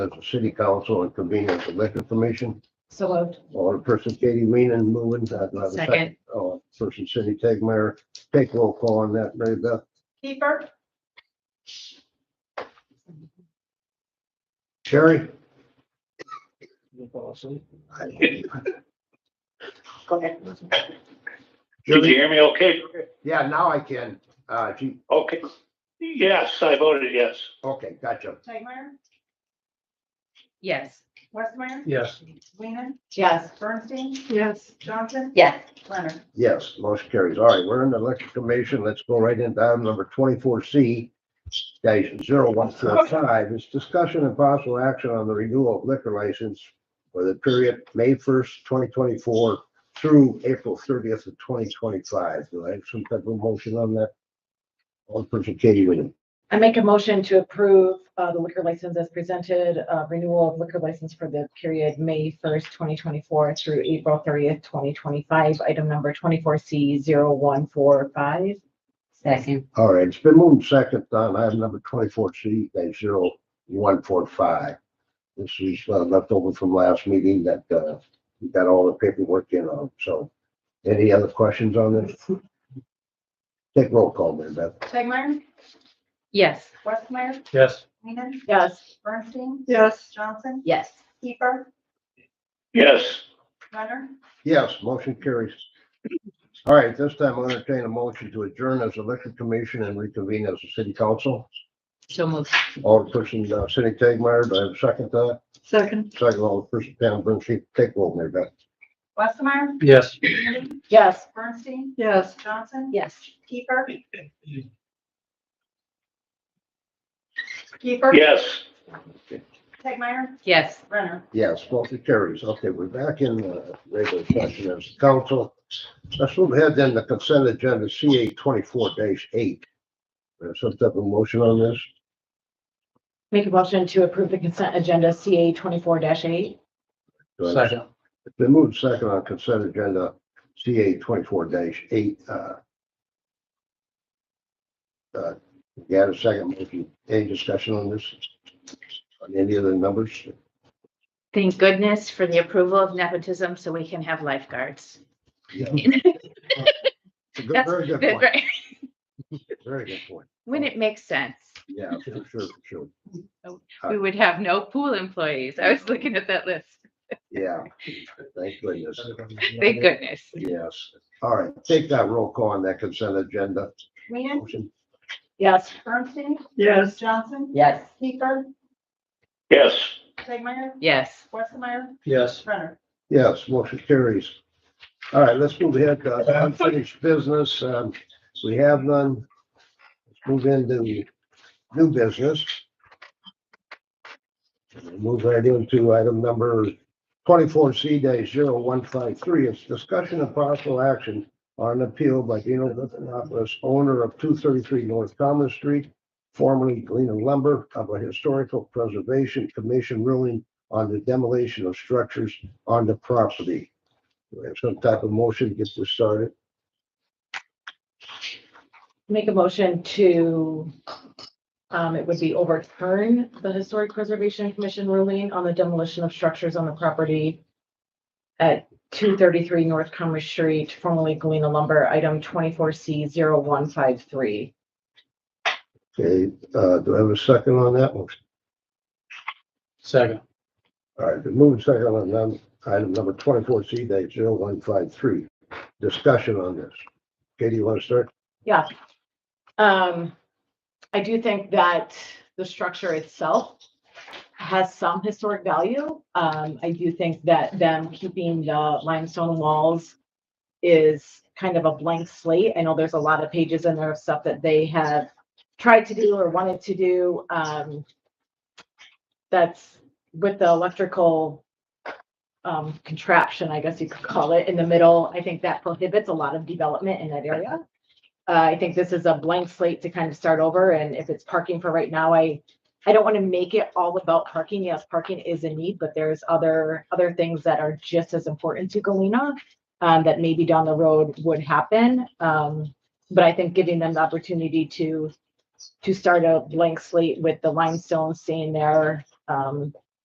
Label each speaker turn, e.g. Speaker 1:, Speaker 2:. Speaker 1: as a city council and convene as a liquor commission.
Speaker 2: So moved.
Speaker 1: All in person Katie Weenan moving, uh, that, that,
Speaker 2: Second.
Speaker 1: all in person Cindy Tegmeyer, take roll call on that, Mary Beth.
Speaker 2: Keeper?
Speaker 1: Sherry?
Speaker 2: Go ahead.
Speaker 3: Did you
Speaker 1: Julie?
Speaker 3: hear me okay?
Speaker 1: Yeah, now I can, uh, gee,
Speaker 3: Okay. Yes, I voted yes.
Speaker 1: okay, gotcha.
Speaker 4: Tegmeyer,
Speaker 2: Yes.
Speaker 4: Westmeyer,
Speaker 5: Yes.
Speaker 4: Weenan,
Speaker 2: Yes.
Speaker 4: Bernstein,
Speaker 2: Yes.
Speaker 4: Johnson,
Speaker 2: Yes.
Speaker 4: Leonard.
Speaker 1: Yes, motion carries. All right, we're in the election commission. Let's go right into item number twenty-four C dash zero one four five. It's discussion and possible action on the renewal of liquor license for the period May first, twenty twenty-four through April thirtieth of twenty twenty-five. Do I have some type of motion on that? All person Katie Weenan.
Speaker 6: I make a motion to approve uh, the liquor license as presented, uh, renewal of liquor license for the period May 1st, 2024 through April 30th, 2025, item number 24C0145.
Speaker 2: Second.
Speaker 1: All right, it's been moved second on item number twenty-four C dash zero one four five. This is uh, left over from last meeting that, uh, we got all the paperwork in on, so. Any other questions on this? Take roll call, Mary Beth.
Speaker 4: Tegmeyer,
Speaker 2: Yes.
Speaker 4: Westmeyer,
Speaker 5: Yes.
Speaker 4: Weenan,
Speaker 6: Yes.
Speaker 4: Bernstein,
Speaker 6: Yes.
Speaker 4: Johnson,
Speaker 2: Yes.
Speaker 4: Keeper,
Speaker 3: Yes,
Speaker 4: Leonard.
Speaker 1: Yes, motion carries. All right, this time I'll entertain a motion to adjourn as elected commission and reconvene as a city council.
Speaker 2: So moved.
Speaker 1: All person, uh, City Tagmeyer, do I have a second to
Speaker 6: Second.
Speaker 1: that? Second, all person, Pam Bernstein, take roll, Mary Beth.
Speaker 4: Westmeyer,
Speaker 5: Yes.
Speaker 4: Weenan,
Speaker 6: Yes.
Speaker 4: Bernstein,
Speaker 6: Yes.
Speaker 4: Johnson,
Speaker 2: Yes.
Speaker 4: Keeper. Keeper.
Speaker 3: yes.
Speaker 4: Tegmeyer,
Speaker 2: Yes.
Speaker 4: Leonard.
Speaker 1: Yes, motion carries. Okay, we're back in uh, regular session as council. Let's move ahead then the consent agenda CA twenty-four dash eight. There's some type of motion on this?
Speaker 6: Make a motion to approve the consent agenda CA 24-8.
Speaker 1: Do I-
Speaker 5: Second.
Speaker 1: It's been moved second on consent agenda CA twenty-four dash eight. uh, uh, You had a second, motion. any discussion on this? On any of the numbers?
Speaker 2: Thank goodness for the approval of nepotism so we can have lifeguards.
Speaker 1: Yeah. It's a good-
Speaker 2: That's
Speaker 1: Very good point,
Speaker 2: Right.
Speaker 1: very good point.
Speaker 2: When it makes sense.
Speaker 1: Yeah, for sure, for sure.
Speaker 2: We would have no pool employees. I was looking at that list.
Speaker 1: Yeah, thank goodness.
Speaker 2: Thank goodness.
Speaker 1: Yes, all right, take that roll call on that consent agenda.
Speaker 4: Weenan,
Speaker 1: Motion.
Speaker 6: Yes.
Speaker 4: Bernstein,
Speaker 6: Yes.
Speaker 4: Johnson,
Speaker 2: Yes.
Speaker 4: Keeper,
Speaker 3: Yes.
Speaker 4: Tegmeyer,
Speaker 2: Yes.
Speaker 4: Westmeyer,
Speaker 5: Yes.
Speaker 4: Leonard.
Speaker 1: Yes, motion carries. All right, let's move ahead to unfinished business. Um, we have none. Let's move into new business. Move right into item number twenty-four C day zero one five three. It's discussion of possible action on an appeal by Dino Litvinopoulos, owner of two thirty-three North Common Street, formerly Galena Lumber, of a historical preservation commission ruling on the demolition of structures on the property. Do we have some type of motion to get this started?
Speaker 6: Make a motion to, um, it would be overturn the Historic Preservation Commission ruling on the demolition of structures on the property at two thirty-three North Commerce Street, formerly Galena Lumber, item twenty-four C 153
Speaker 1: Okay, uh, do I have a second on that one?
Speaker 5: Second.
Speaker 1: All right, the move second on num- item number twenty-four C date zero one five three. Discussion on this. Katie, you want to start?
Speaker 6: Um, I do think that the structure itself has some historic value. Um, I do think that them keeping the limestone walls is kind of a blank slate. I know there's a lot of pages in there of stuff that they have tried to do or wanted to do. Um, that's with the electrical um, contraption, I guess you could call it, in the middle. I think that prohibits a lot of development in that area. Uh, I think this is a blank slate to kind of start over, and if it's parking for right now, I, I don't want to make it all about parking. Yes, parking is a need, but there's other, other things that are just as important to Galena um, that maybe down the road would happen. Um, but I think giving them the opportunity to, to start a blank slate with the limestone staying there, um,